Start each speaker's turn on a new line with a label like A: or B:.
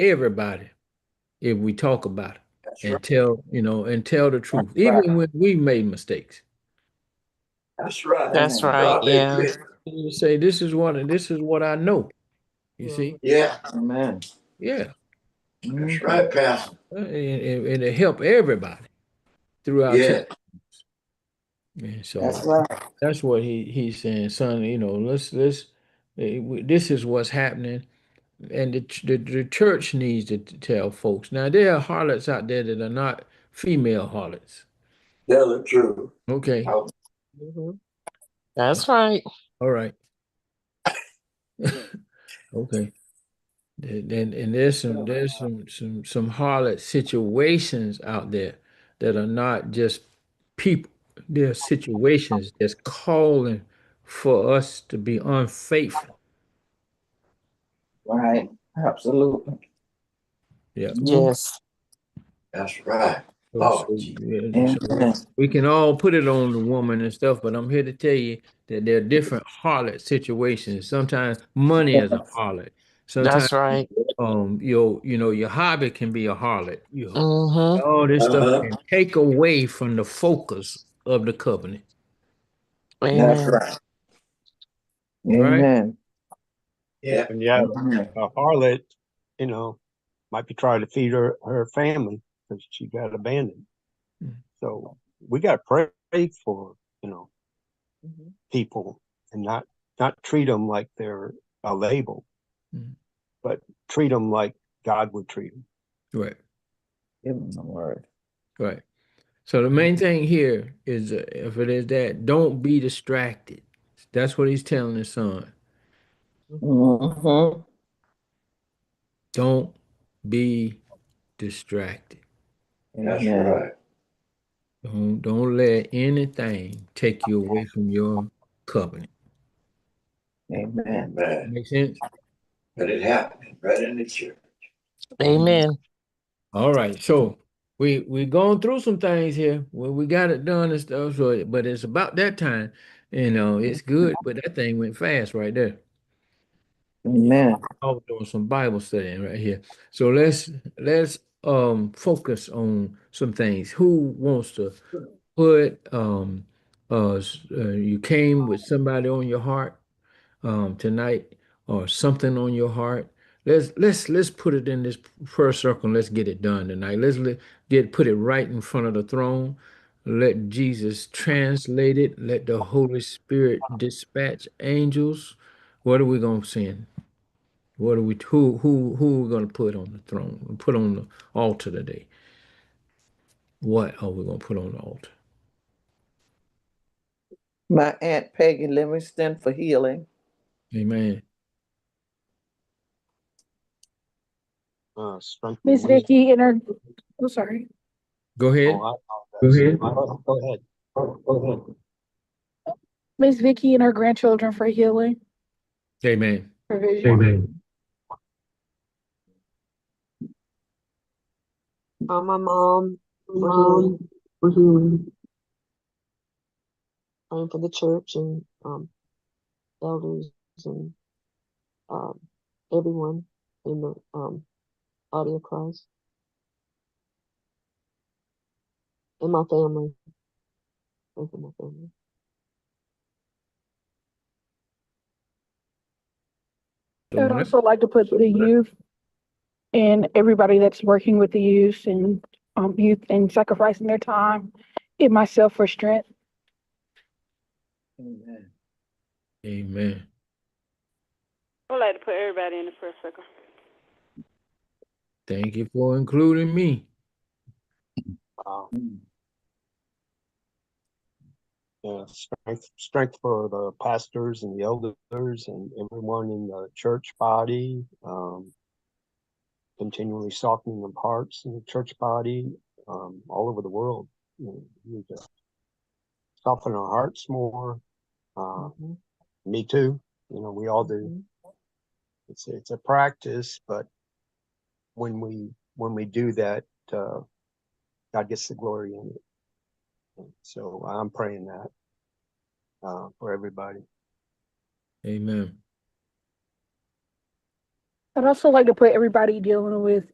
A: everybody if we talk about it
B: That's
A: and
B: right.
A: tell, you know, and tell the truth,
B: That's right.
A: even when we made mistakes.
B: That's right.
C: That's right,
B: God, they
C: yeah.
B: did.
A: You say, this is what, and this is what I know. You see?
B: Yeah, amen.
A: Yeah.
B: That's right, Pastor.
A: Uh, And, and, and to help everybody throughout.
B: Yeah,
A: time. And so
B: that's right.
A: that's what he he's saying, son. You know, let's let's eh, we- this is what's happening, and the ch- the, the church needs to t- tell folks. Now there are harlots out there that are not female harlots.
B: Tell the truth.
A: Okay,
B: I was-
C: Mhm. That's right.
A: all right. okay. Then then- and there's some there's some some some harlot situations out there that are not just people. There are situations that's calling for us to be unfaithful.
B: Right, absolutely.
A: Yeah.
C: Yes.
B: That's right.
A: So-
B: Oh,
A: so,
B: gee.
A: yeah, so
B: Amen.
A: we can all put it on the woman and stuff, but I'm here to tell you that there are different harlot situations. Sometimes money is a harlot. Sometimes
C: That's right.
A: um your you know your hobby can be a harlot. You
C: hmm
A: all this
B: Uh-huh.
A: stuff can take away from the focus of the covenant.
B: That's
C: Amen.
B: right.
A: Right?
B: Amen. Yeah.
D: And yeah,
B: amen.
D: a harlot, you know, might be trying to feed her, her family because she got abandoned.
A: Mm.
D: So we got to pray for, you know,
B: Mm-hmm.
C: Mhm.
D: people and not, not treat them like they're a label,
A: Mm.
D: but treat them like God would treat them.
A: Right,
B: Give them the word.
A: right. So the main thing here is uh, if it is that, don't be distracted. That's what he's telling his son.
B: Mhm.
A: Don't be distracted.
B: That's
E: Amen.
B: right.
A: Don't don't let anything take you away from your covenant.
B: Amen.
A: Make sense?
B: But it happened right in the church.
C: Amen.
A: All right. So we we going through some things here. Well, we got it done and stuff. So, but it's about that time. You know, it's good, but that thing went fast right there.
B: Amen.
A: I was doing some Bible studying right here. So let's let's um focus on some things. Who wants to put um uh, s- uh you came with somebody on your heart um tonight or something on your heart. Let's let's let's put it in this prayer circle and let's get it done tonight. Let's let, get put it right in front of the throne. Let Jesus translate it. Let the Holy Spirit dispatch angels. What are we gonna send? What are we who who who are we gonna put on the throne? Put on the altar today. What are we gonna put on the altar?
E: My Aunt Peggy Livingston for healing.
A: Amen.
D: Uh, strengthen
F: Miss
D: wisdom.
F: Vicky in her, I'm Oh, sorry.
A: Go ahead.
D: Oh, I-
A: Go ahead.
D: Go ahead. Go ahead.
F: Miss Vicky and her grandchildren for healing,
A: Amen.
F: provision.
A: Amen.
G: Uh, my mom, for healing, for healing. Um, Mm-hmm. for the church and um, elders and um, everyone in the um, body of Christ. And my family. Pray for my family.
F: I would also like to put the youth and everybody that's working with the youth and, um, youth and sacrificing their time in myself for strength.
B: Amen.
A: Amen.
H: I would like to put everybody in the prayer circle.
A: Thank you for including me.
D: Wow. Yeah, strength, strength for the pastors and the elders and everyone in the church body. Um, continually softening of hearts in the church body, um, all over the world. You know, we need to soften our hearts more. Uh,
G: Mhm,
D: me too. You know, we all do.
G: mhm.
D: It's it's a practice, but when we when we do that, uh, God gets the glory in it. So I'm praying that uh, for everybody.
A: Amen.
F: I'd also like to put everybody dealing with